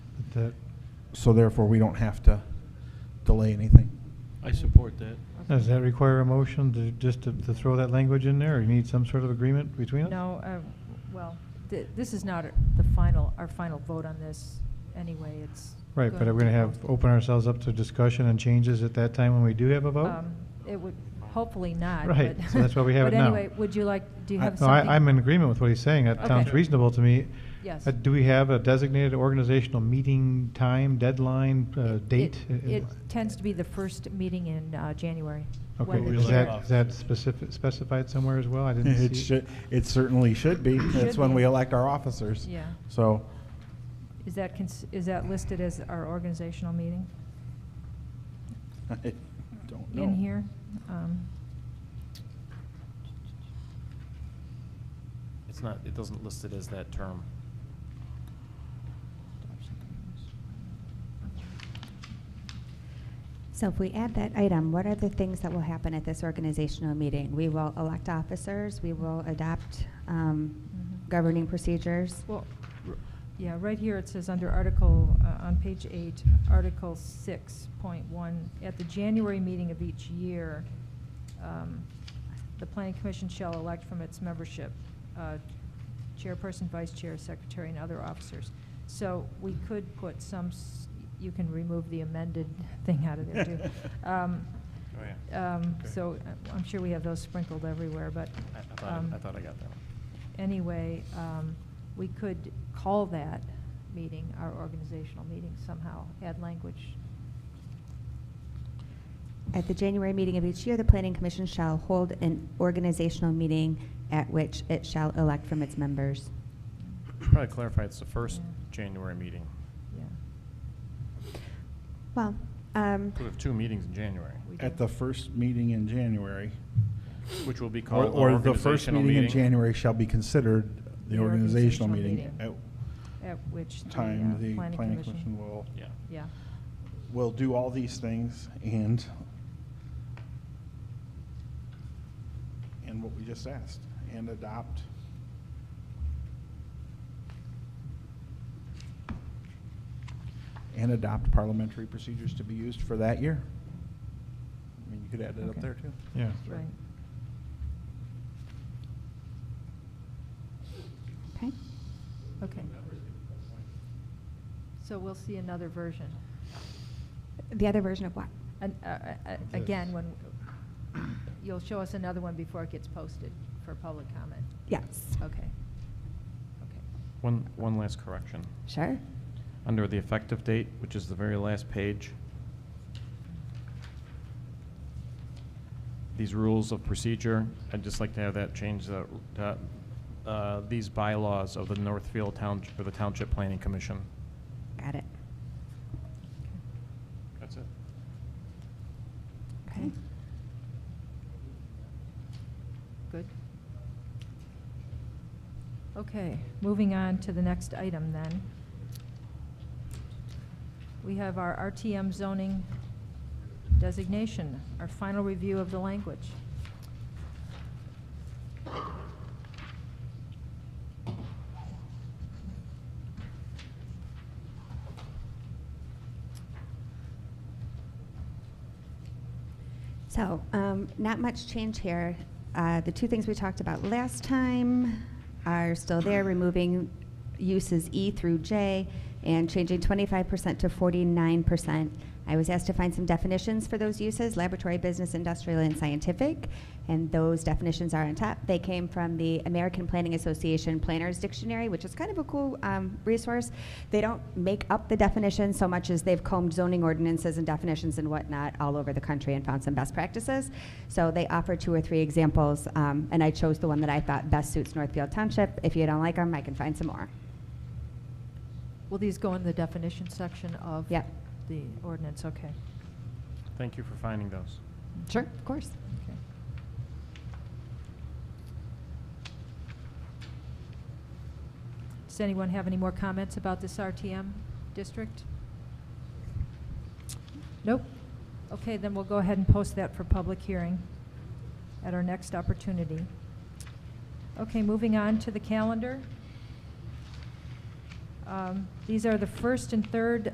That, So therefore, we don't have to delay anything. I support that. does that require a motion to, just to, to throw that language in there, or you need some sort of agreement between us? No, uh, well, th- this is not the final, our final vote on this anyway, it's. Right, but going are we gonna to have, go- open ourselves up to discussion and changes at that time when we do have a vote? Um, It would, hopefully not. Right, but- so that's why we have it now. But anyway, would you like, do you I- have No, something? I, I'm in agreement with what he's saying, that Okay. sounds reasonable to me. Yes. Uh, Do we have a designated organizational meeting time, deadline, uh, It- date? It it tends to be the first meeting in uh, January. Okay, when the is elect chair- that, is that specific, specified somewhere as well? I didn't It see. it. should, it certainly should be. That's Should when be. we elect our officers. Yeah. So, Is that, cons- is that listed as our organizational meeting I don't know. in here? Um, It's not, it doesn't list it as that term. So if we add that item, what are the things that will happen at this organizational meeting? We will elect officers, we will adopt um, Mhm. governing procedures. Well, r- yeah, right here it says under Article, uh, on page eight, Article six point one, at the January meeting of each year, um, the planning commission shall elect from its membership, uh, chairperson, vice chair, secretary, and other officers. So we could put some, s- you can remove the amended thing out of there too. Um, Oh, yeah. um, Okay. So uh, I'm sure we have those sprinkled everywhere, but. I, I thought, um, I, I thought I got that one. anyway, um, we could call that meeting, our organizational meeting somehow, add language. At the January meeting of each year, the planning commission shall hold an organizational meeting at which it shall elect from its members. Probably clarify, it's the first Yeah. January meeting. Yeah, Well, um, We have two meetings in January, we At do. the first meeting in January. which will be Or called or the first organizational meeting in meeting. January shall be considered the The organizational organizational meeting. meeting. At At which the uh, time, the planning commission. will, Yeah. Yeah, will do all these things and, and what we just asked, and adopt. And adopt parliamentary procedures to be used for that year. I mean, you could add it up Okay. there too. Yeah. right. okay. Okay. So we'll see another version. The other version of what? An- uh, uh, uh, Again, when, you'll show us another one before it gets posted for public comment. Yes. Okay. Okay. One, one last correction. Sure. Under the effective date, which is the very last page, these rules of procedure, I'd just like to have that change, the, uh, uh, these bylaws of the Northfield Town, for the Township Planning Commission. Got it. That's it. Okay. Good. Okay, moving on to the next item then. We have our RTM zoning designation, our final review of the language. So, um, not much change here. Uh, the two things we talked about last time are still there, removing uses E through J and changing 25% to 49%. I was asked to find some definitions for those uses, laboratory, business, industrial, and scientific, and those definitions are on top. They came from the American Planning Association Planners Dictionary, which is kind of a cool um, resource. They don't make up the definitions so much as they've combed zoning ordinances and definitions and whatnot all over the country and found some best practices. So they offer two or three examples, um, and I chose the one that I thought best suits Northfield Township. If you don't like them, I can find some more. Will these go in the definition section of? Yep. The ordinance, okay. Thank you for finding those. Sure, of course. Okay. Does anyone have any more comments about this RTM district? Nope? Okay, then we'll go ahead and post that for public hearing at our next opportunity. Okay, moving on to the calendar. Um, Um, These are the first and third